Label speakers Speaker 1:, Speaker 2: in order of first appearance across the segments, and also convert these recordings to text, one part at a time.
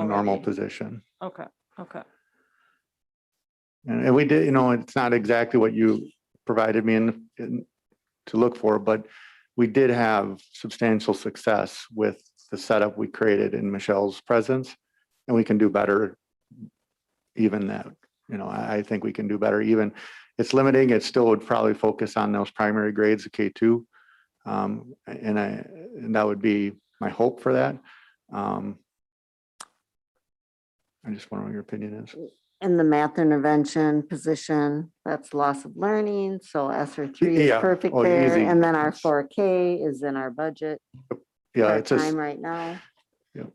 Speaker 1: a normal
Speaker 2: already.
Speaker 1: position.
Speaker 2: Okay, okay.
Speaker 1: And and we did, you know, it's not exactly what you provided me in, in- to look for, but we did have substantial success with the setup we created in Michelle's presence. And we can do better even that, you know, I, I think we can do better even. It's limiting, it still would probably focus on those primary grades, the K two. Um, and I, and that would be my hope for that. Um, I just wonder what your opinion is.
Speaker 3: And the math intervention position, that's loss of learning, so ESER three is
Speaker 1: yeah.
Speaker 3: perfect
Speaker 1: Oh,
Speaker 3: there.
Speaker 1: easy.
Speaker 3: And then our
Speaker 1: It's-
Speaker 3: four K is in our budget
Speaker 1: Yeah, it's just.
Speaker 3: part-time right now.
Speaker 1: Yep.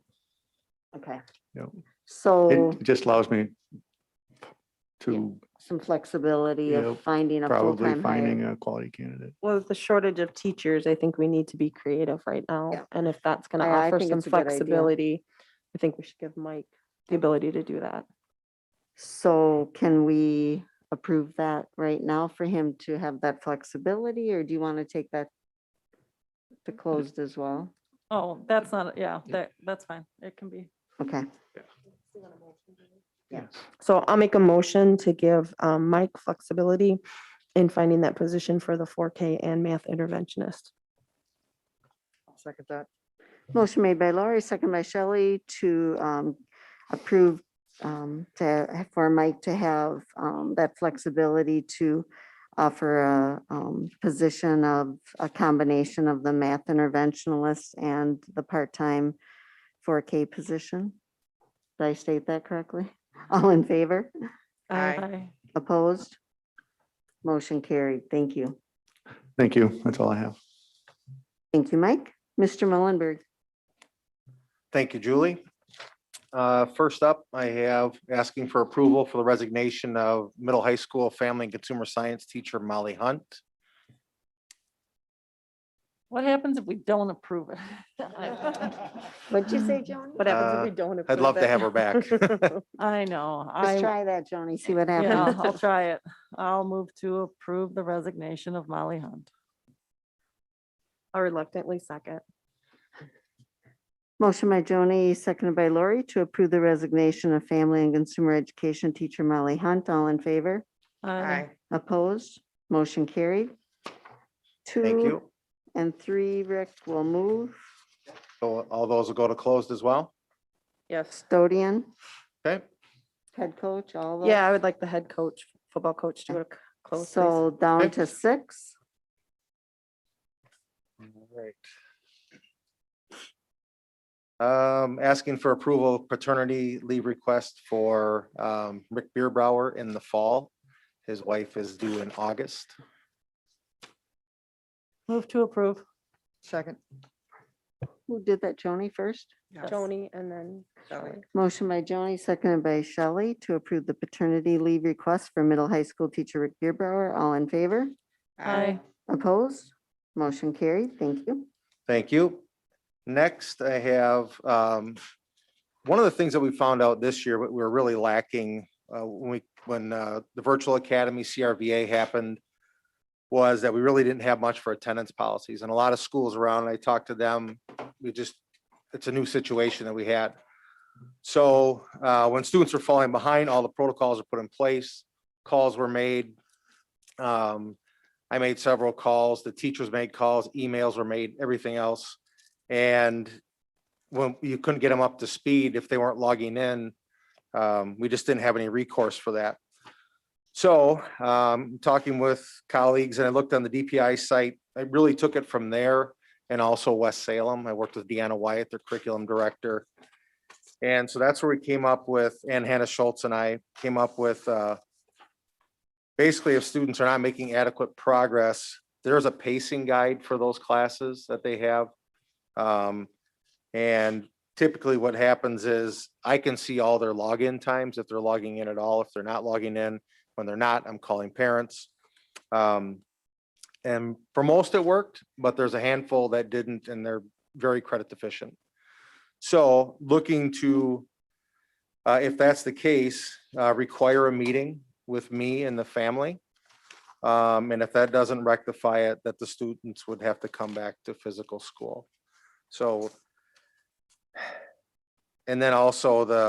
Speaker 3: Okay.
Speaker 1: Yep.
Speaker 3: So
Speaker 1: It just allows me to
Speaker 3: some flexibility of
Speaker 1: Yep,
Speaker 3: finding a
Speaker 1: probably
Speaker 3: full-time
Speaker 1: finding
Speaker 3: hire.
Speaker 1: a quality candidate.
Speaker 4: Well, with the shortage of teachers, I think we need to be creative right
Speaker 3: Yeah.
Speaker 4: now. And if that's gonna
Speaker 3: I- I
Speaker 4: offer
Speaker 3: think
Speaker 4: some
Speaker 3: it's a good idea.
Speaker 4: flexibility, I think we should give Mike the ability to do that.
Speaker 3: So can we approve that right now for him to have that flexibility, or do you want to take that to closed as well?
Speaker 2: Oh, that's not, yeah, that, that's fine. It can be.
Speaker 3: Okay,
Speaker 4: So I'll make a motion to give um, Mike flexibility in finding that position for the four K and math interventionist.
Speaker 5: Second that.
Speaker 3: motion made by Lori, second by Shelley to um, approve um, to, for Mike to have um, that flexibility to offer a um, position of a combination of the math interventionalist and the part-time 4K position. Did I state that correctly? All in favor?
Speaker 5: Aye.
Speaker 2: I
Speaker 3: Opposed? Motion carried. Thank you.
Speaker 1: Thank you. That's all I have.
Speaker 3: Thank you, Mike. Mr. Mullenberg,
Speaker 6: Thank you, Julie. Uh, First up, I have asking for approval for the resignation of middle high school family and consumer science teacher Molly Hunt.
Speaker 2: What happens if we don't approve it? I-
Speaker 3: what'd you say, Joni?
Speaker 4: What happens if we don't?
Speaker 6: Uh, I'd
Speaker 4: approve
Speaker 6: love to
Speaker 4: it?
Speaker 6: have her back.
Speaker 2: I know,
Speaker 3: Let's
Speaker 2: I,
Speaker 3: try that, Joni, see what
Speaker 2: yeah,
Speaker 3: happens.
Speaker 2: I'll try it. I'll move to approve the resignation of Molly Hunt.
Speaker 4: I reluctantly second.
Speaker 3: Motion by Joni, seconded by Lori to approve the resignation of family and consumer education teacher Molly Hunt. All in favor?
Speaker 2: I
Speaker 3: Opposed? Motion carried.
Speaker 6: Thank
Speaker 3: Two
Speaker 6: you.
Speaker 3: and three, Rick will move.
Speaker 6: So all those will go to closed as well.
Speaker 4: Yes.
Speaker 3: Custodian,
Speaker 6: Okay,
Speaker 3: head coach, all those.
Speaker 4: Yeah, I would like the head coach, football coach to go to c- close. please.
Speaker 3: So down
Speaker 6: Okay.
Speaker 3: to six.
Speaker 6: Right. Um, asking for approval of paternity leave request for um, Rick Beerbrower in the fall. His wife is due in August.
Speaker 2: Move to approve.
Speaker 5: Second.
Speaker 3: Who did that? Joni first?
Speaker 5: Yes.
Speaker 4: Joni and then
Speaker 5: Shelley.
Speaker 4: Shelley.
Speaker 3: Motion by Joni, seconded by Shelley to approve the paternity leave request for middle high school teacher Rick Beerbrower. All in favor?
Speaker 2: I
Speaker 3: Opposed? Motion carried. Thank you.
Speaker 6: Thank you. Next, I have, um, one of the things that we found out this year, but we were really lacking, uh, when we, when, uh, the virtual academy CRVA happened was that we really didn't have much for attendance policies and a lot of schools around, I talked to them, we just, it's a new situation that we had. So, uh, when students are falling behind, all the protocols are put in place, calls were made. Um, I made several calls, the teachers made calls, emails were made, everything else. And when you couldn't get them up to speed if they weren't logging in, um, we just didn't have any recourse for that. So, um, talking with colleagues and I looked on the DPI site, I really took it from there and also West Salem. I worked with Deanna Wyatt, their curriculum director. And so that's where we came up with, and Hannah Schultz and I came up with, uh, basically if students are not making adequate progress, there's a pacing guide for those classes that they have. Um, and typically what happens is I can see all their login times, if they're logging in at all, if they're not logging in. When they're not, I'm calling parents. Um, and for most it worked, but there's a handful that didn't and they're very credit deficient. So looking to, uh, if that's the case, uh, require a meeting with me and the family. Um, and if that doesn't rectify it, that the students would have to come back to physical school. So And then also the